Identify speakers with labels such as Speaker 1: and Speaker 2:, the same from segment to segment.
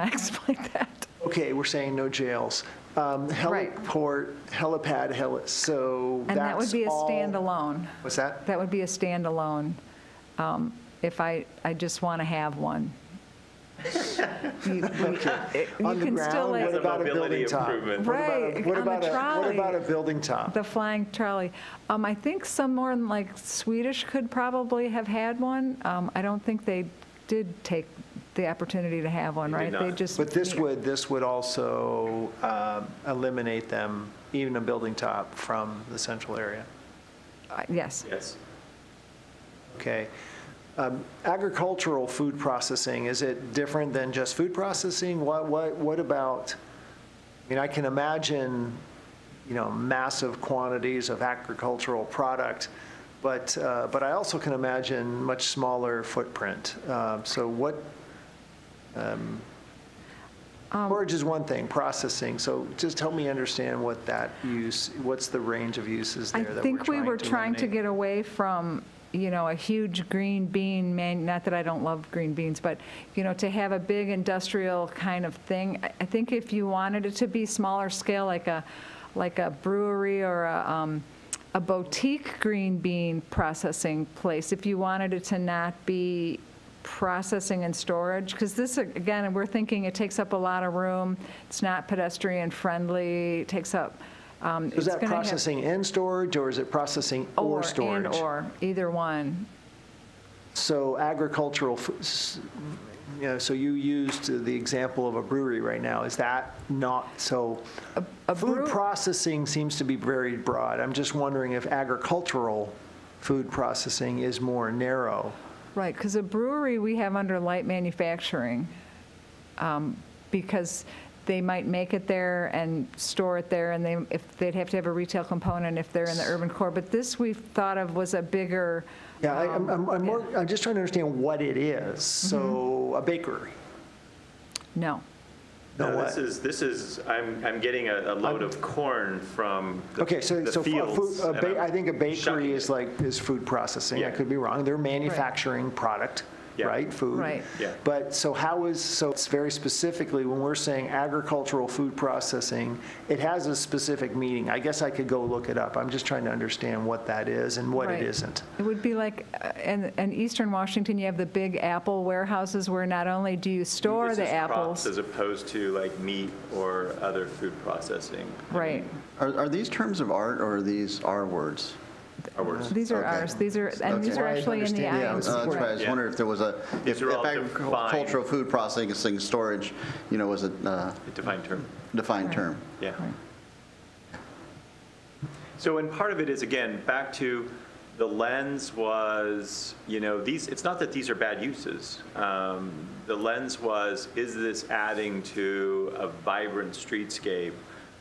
Speaker 1: acts like that.
Speaker 2: Okay, we're saying no jails. Um,
Speaker 1: Right.
Speaker 2: Heliport, helipad, heli, so
Speaker 1: And that would
Speaker 2: that's
Speaker 1: be a
Speaker 2: all-
Speaker 1: standalone.
Speaker 2: What's that?
Speaker 1: That would be a standalone, um, if I, I just want to have one. You we- it- you
Speaker 2: On the
Speaker 1: can still,
Speaker 2: ground, what
Speaker 1: like,
Speaker 2: about a
Speaker 3: Mobility
Speaker 2: building top?
Speaker 3: improvement.
Speaker 2: What about a-
Speaker 1: Right, on
Speaker 2: what
Speaker 1: the
Speaker 2: about a- What
Speaker 1: trolley.
Speaker 2: about a building top?
Speaker 1: the flying trolley. Um, I think someone like Swedish could probably have had one. Um, I don't think they did take the opportunity to have one,
Speaker 3: They
Speaker 1: right?
Speaker 3: did
Speaker 1: They
Speaker 3: not.
Speaker 1: just.
Speaker 2: But this would, this would also um, eliminate them, even a building top, from the central area.
Speaker 1: Uh, Yes.
Speaker 3: Yes.
Speaker 2: Okay. Um, Agricultural food processing, is it different than just food processing? What, what, what about, I mean, I can imagine, you know, massive quantities of agricultural product, but, uh, but I also can imagine much smaller footprint. Uh, So what, um,
Speaker 1: Um,
Speaker 2: storage is one thing, processing, so just help me understand what that use, what's the range of uses
Speaker 1: I
Speaker 2: there that we're trying to
Speaker 1: think we were trying to
Speaker 2: eliminate?
Speaker 1: get away from, you know, a huge green bean man, not that I don't love green beans, but, you know, to have a big industrial kind of thing. I- I think if you wanted it to be smaller scale, like a, like a brewery or a, um, a boutique green bean processing place, if you wanted it to not be processing and storage, because this, again, we're thinking it takes up a lot of room, it's not pedestrian friendly, it takes up, um, it's
Speaker 2: Is that
Speaker 1: gonna have-
Speaker 2: processing and storage, or is it processing or storage?
Speaker 1: and or, either one.
Speaker 2: So agricultural, f- s- you know, so you used the example of a brewery right now. Is that not, so
Speaker 1: a brew-
Speaker 2: food processing seems to be very broad. I'm just wondering if agricultural food processing is more narrow.
Speaker 1: Right, because a brewery we have under light manufacturing, um, because they might make it there and store it there, and they, if, they'd have to have a retail component if they're in the urban core. But this we've thought of was a bigger,
Speaker 2: Yeah, I- I'm, I'm- I'm
Speaker 1: Um,
Speaker 2: more, I'm just trying to understand what it is.
Speaker 1: Mm-hmm.
Speaker 2: So a bakery?
Speaker 1: no.
Speaker 2: No,
Speaker 3: No,
Speaker 2: what?
Speaker 3: Uh, this is, this is, I'm, I'm getting a a load of corn from the
Speaker 2: Okay, so,
Speaker 3: the
Speaker 2: so fu- a
Speaker 3: fields,
Speaker 2: food- a
Speaker 3: and
Speaker 2: ba- I
Speaker 3: I'm
Speaker 2: think a
Speaker 3: shucking
Speaker 2: bakery
Speaker 3: it.
Speaker 2: is like, is food processing, I
Speaker 3: Yeah.
Speaker 2: could be wrong, they're manufacturing product,
Speaker 3: Yeah.
Speaker 2: right, food?
Speaker 1: Right.
Speaker 3: Yeah.
Speaker 2: But, so how is, so it's very specifically, when we're saying agricultural food processing, it has a specific meaning, I guess I could go look it up, I'm just trying to understand what that is and what it
Speaker 1: Right.
Speaker 2: isn't.
Speaker 1: It would be like, uh, in, in eastern Washington, you have the big apple warehouses where not only do you store
Speaker 3: This
Speaker 1: the
Speaker 3: is crops
Speaker 1: apples.
Speaker 3: As opposed to like meat or other food processing.
Speaker 1: Right.
Speaker 4: Are, are these terms of art or are these R words?
Speaker 3: Our words.
Speaker 1: These are
Speaker 4: Okay.
Speaker 1: ours, these are, and these
Speaker 4: Okay.
Speaker 1: are
Speaker 2: Right,
Speaker 1: actually in the
Speaker 2: understand. Yeah,
Speaker 4: Uh,
Speaker 1: IMC.
Speaker 4: That's right, I was
Speaker 3: Yeah.
Speaker 4: wondering if there was a, if
Speaker 3: These are all
Speaker 4: if agricultural food processing, storage, you know, was a uh,
Speaker 3: Defined term,
Speaker 4: defined term.
Speaker 3: yeah. So, and part of it is, again, back to the lens was, you know, these, it's not that these are bad uses. Um, The lens was, is this adding to a vibrant streetscape?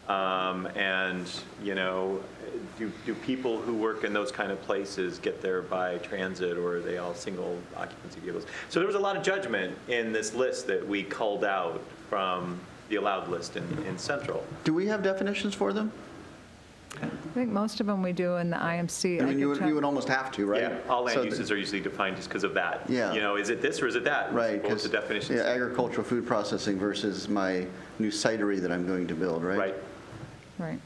Speaker 3: Um, And, you know, do, do people who work in those kind of places get there by transit or are they all single occupancy vehicles? So there was a lot of judgment in this list that we culled out from the allowed list in, in Central.
Speaker 4: Do we have definitions for them?
Speaker 1: I think most of them we do in the IMC.
Speaker 4: I mean,
Speaker 1: could
Speaker 4: you would,
Speaker 1: check.
Speaker 4: you would almost have to, right?
Speaker 3: Yeah, all
Speaker 4: So
Speaker 3: land
Speaker 4: th-
Speaker 3: uses are usually defined just because of that.
Speaker 4: Yeah.
Speaker 3: You know, is it this or is it that?
Speaker 4: Right.
Speaker 3: What's the
Speaker 4: 'cause,
Speaker 3: definition?
Speaker 4: Yeah, agricultural food processing versus my new cidery that I'm going to build, right?
Speaker 3: Right.
Speaker 1: Right.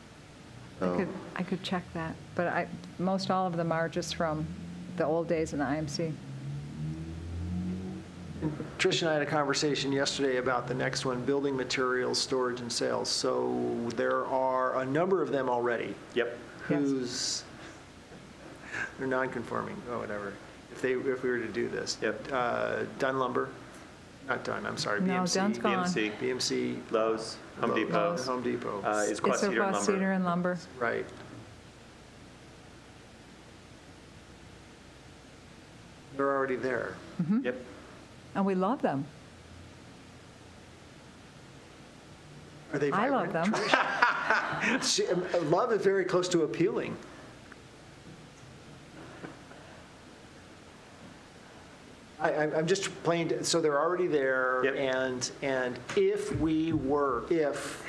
Speaker 1: I
Speaker 4: So-
Speaker 1: could, I could check that, but I, most all of them are just from the old days in the IMC.
Speaker 2: Trish and I had a conversation yesterday about the next one, building materials, storage and sales. So there are a number of them already.
Speaker 3: Yep.
Speaker 1: Yes.
Speaker 2: who's, they're non-conforming, or whatever, if they, if we were to do this.
Speaker 3: Yep.
Speaker 2: Uh, Dunn lumber, not Dunn, I'm sorry,
Speaker 1: No,
Speaker 2: BMC.
Speaker 1: Dunn's gone.
Speaker 3: BMC,
Speaker 2: BMC.
Speaker 3: Lowe's, Home Depot,
Speaker 4: Mm-hmm.
Speaker 2: Home Depot,
Speaker 3: uh, is
Speaker 1: It's
Speaker 3: Quad
Speaker 1: a
Speaker 3: Cedar
Speaker 1: raw cedar
Speaker 3: lumber.
Speaker 1: and lumber.
Speaker 2: right. They're already there.
Speaker 3: Yep.
Speaker 1: And we love them.
Speaker 2: Are they
Speaker 1: I love
Speaker 2: vibrant?
Speaker 1: them.
Speaker 2: She- um, Love is very close to appealing. I, I'm I'm just playing, to- so they're already there.
Speaker 3: Yep.
Speaker 2: And, and if we were, if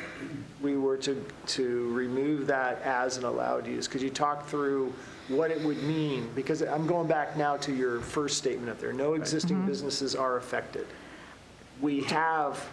Speaker 2: we were to, to remove that as an allowed use, could you talk through what it would mean? Because I'm going back now to your first statement up there, no existing businesses are affected. We have